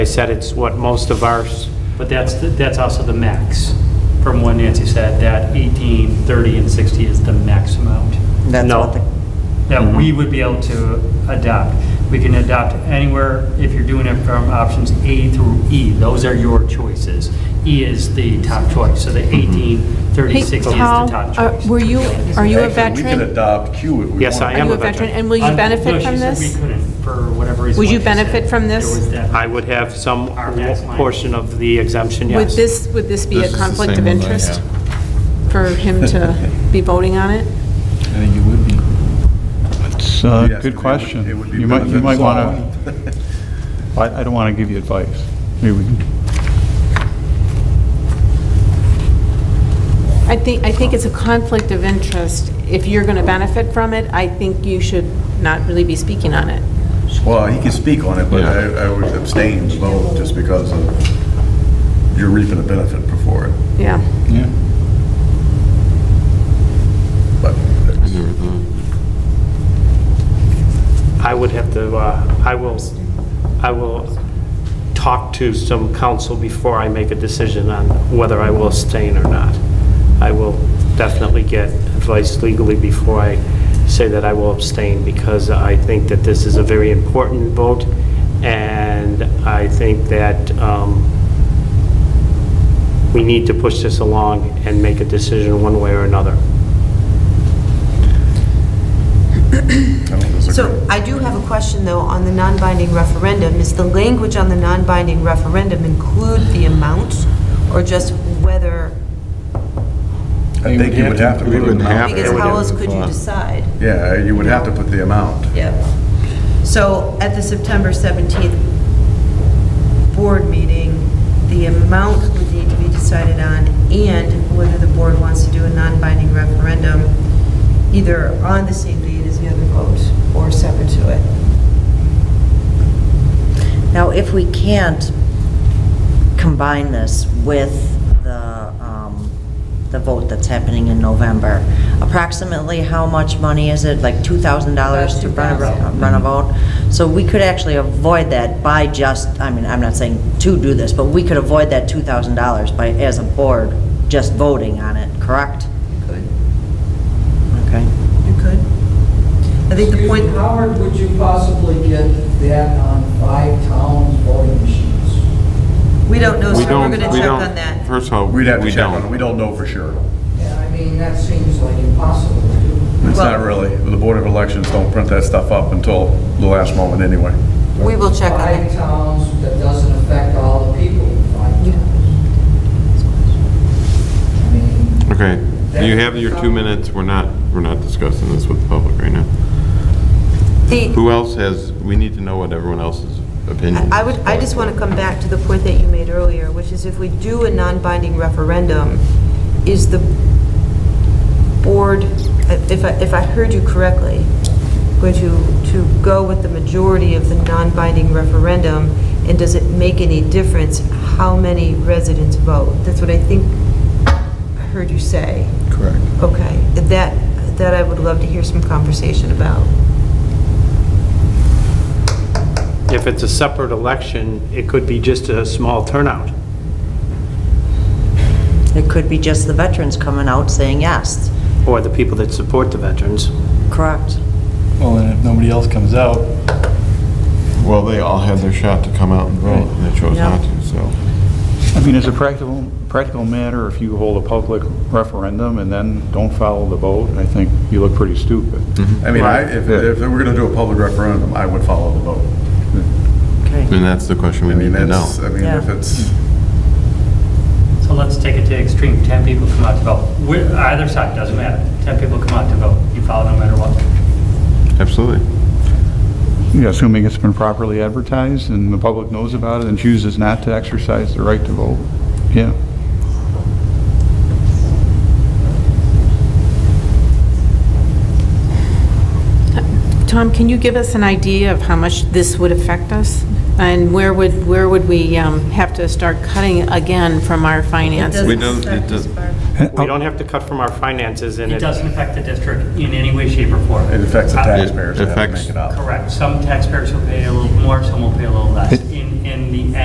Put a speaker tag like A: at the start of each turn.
A: I said it's what most of ours,
B: But that's, that's also the max, from what Nancy said, that 18, 30, and 60 is the max amount
C: That's
A: No.
C: what the,
B: that we would be able to adopt. We can adopt anywhere, if you're doing it from options A through E, those are your choices. E is the top choice, so the 18, 30,
D: Hey,
B: 60 is the
D: Paul,
B: top
D: are-
B: choice.
D: Were you, are you
E: Actually, We
D: a
E: could
D: veteran?
E: adopt Q if we want.
A: Yes, I
D: Are
A: am
D: you
A: a
D: a
A: veteran.
D: veteran? And will
B: Uh,
D: you
B: no,
D: benefit from
B: she said
D: this?
B: we couldn't, for whatever reason.
D: Would you
B: like she said,
D: benefit from
B: there
D: this?
B: was that-
A: I would have some
B: Our tax line.
A: portion of the exemption,
D: Would
A: yes.
D: this, would this be
E: This
D: a
E: is the
D: conflict
E: same
D: of
E: one I
D: interest
E: have.
D: for him to be voting on it?
E: I think it would be.
F: It's a
E: Yes, it
F: good
E: would-
F: question.
E: it would be
F: You might, you might want
E: beneficial.
F: to, I, I don't want to give you advice. Maybe we can
D: I think, I think it's a conflict of interest. If you're going to benefit from it, I think you should not really be speaking on it.
E: Well, he could speak on it, but I I would abstain the vote just because of you're reaping a benefit before it.
D: Yeah.
F: Yeah.
E: But
A: I would have to, uh, I will, I will talk to some council before I make a decision on whether I will abstain or not. I will definitely get advice legally before I say that I will abstain, because I think that this is a very important vote, and I think that um, we need to push this along and make a decision one way or another.
E: I think it's a
G: So
E: great-
G: I do have a question, though, on the non-binding referendum. Is the language on the non-binding referendum include the amount, or just whether?
E: I think you would have to put
H: We
E: an
H: wouldn't
E: amount.
H: have
G: Because
H: it.
G: how else could you decide?
E: Yeah, you would have to put the amount.
G: Yeah. So at the September 17th board meeting, the amount would need to be decided on, and whether the board wants to do a non-binding referendum, either on the same date as the other vote, or separate to it.
I: Now, if we can't combine this with the, um, the vote that's happening in November, approximately how much money is it? Like $2,000 to run a,
G: About
I: vo- run a vote? So we could actually avoid that by just, I mean, I'm not saying to do this, but we could avoid that $2,000 by, as a board, just voting on it, correct?
G: Could,
I: Okay.
G: you could. I think the
J: Excuse
G: point.
J: me, Howard, would you possibly get that on five towns voting machines?
G: We don't know,
H: We
G: sir, we're
H: don't,
G: going to
H: we
G: check
H: don't-
G: on that.
H: First of all, we
E: We'd have to check on it.
H: don't.
E: We don't know for sure.
J: Yeah, I mean, that seems like impossible to do.
E: It's
G: Well-
E: not really. The Board of Elections don't print that stuff up until the last moment anyway.
G: We will check on that.
J: Five towns, that doesn't affect all the people in five towns. I mean,
H: Okay, you have your two minutes, we're not, we're not discussing this with the public right now.
G: The,
H: Who else has, we need to know what everyone else's opinion is.
G: I would, I just want to come back to the point that you made earlier, which is if we do a non-binding referendum, is the board, if I, if I heard you correctly, going to, to go with the majority of the non-binding referendum, and does it make any difference how many residents vote? That's what I think I heard you say.
E: Correct.
G: Okay, that, that I would love to hear some conversation about.
A: If it's a separate election, it could be just a small turnout.
I: It could be just the veterans coming out saying yes,
A: or the people that support the veterans.
I: correct?
K: Well, and if nobody else comes out,
H: Well, they all had their shot to come out and vote, and they chose
I: Yeah.
H: not to, so.
F: I mean, as a practical, practical matter, if you hold a public referendum and then don't follow the vote, I think you look pretty stupid.
E: I mean, I-
F: Right.
E: if if we were going to do a public referendum, I would follow the vote.
H: Hmm.
I: Okay.
H: And that's the question we
E: I mean,
H: need to
E: that's, I
H: know.
E: mean, if
I: Yeah.
E: it's.
B: So let's take it to extreme, 10 people come out to vote. Wh- Either side, doesn't matter. 10 people come out to vote, you follow no matter what.
H: Absolutely.
F: Yeah, Assuming it's been properly advertised and the public knows about it and chooses not to exercise the right to vote, yeah.
D: Tom, can you give us an idea of how much this would affect us? And where would, where would we um, have to start cutting again from our finances?
H: We don't- it does-
F: Uh,
A: We don't have to cut from our finances and
B: It
A: it,
B: doesn't affect the district in any way, shape, or form.
E: It affects the
B: Uh,
E: taxpayers that have to
H: affects-
E: make it up.
B: Correct. Some taxpayers will pay a little more, some will pay a little less.
F: It-
B: In, in the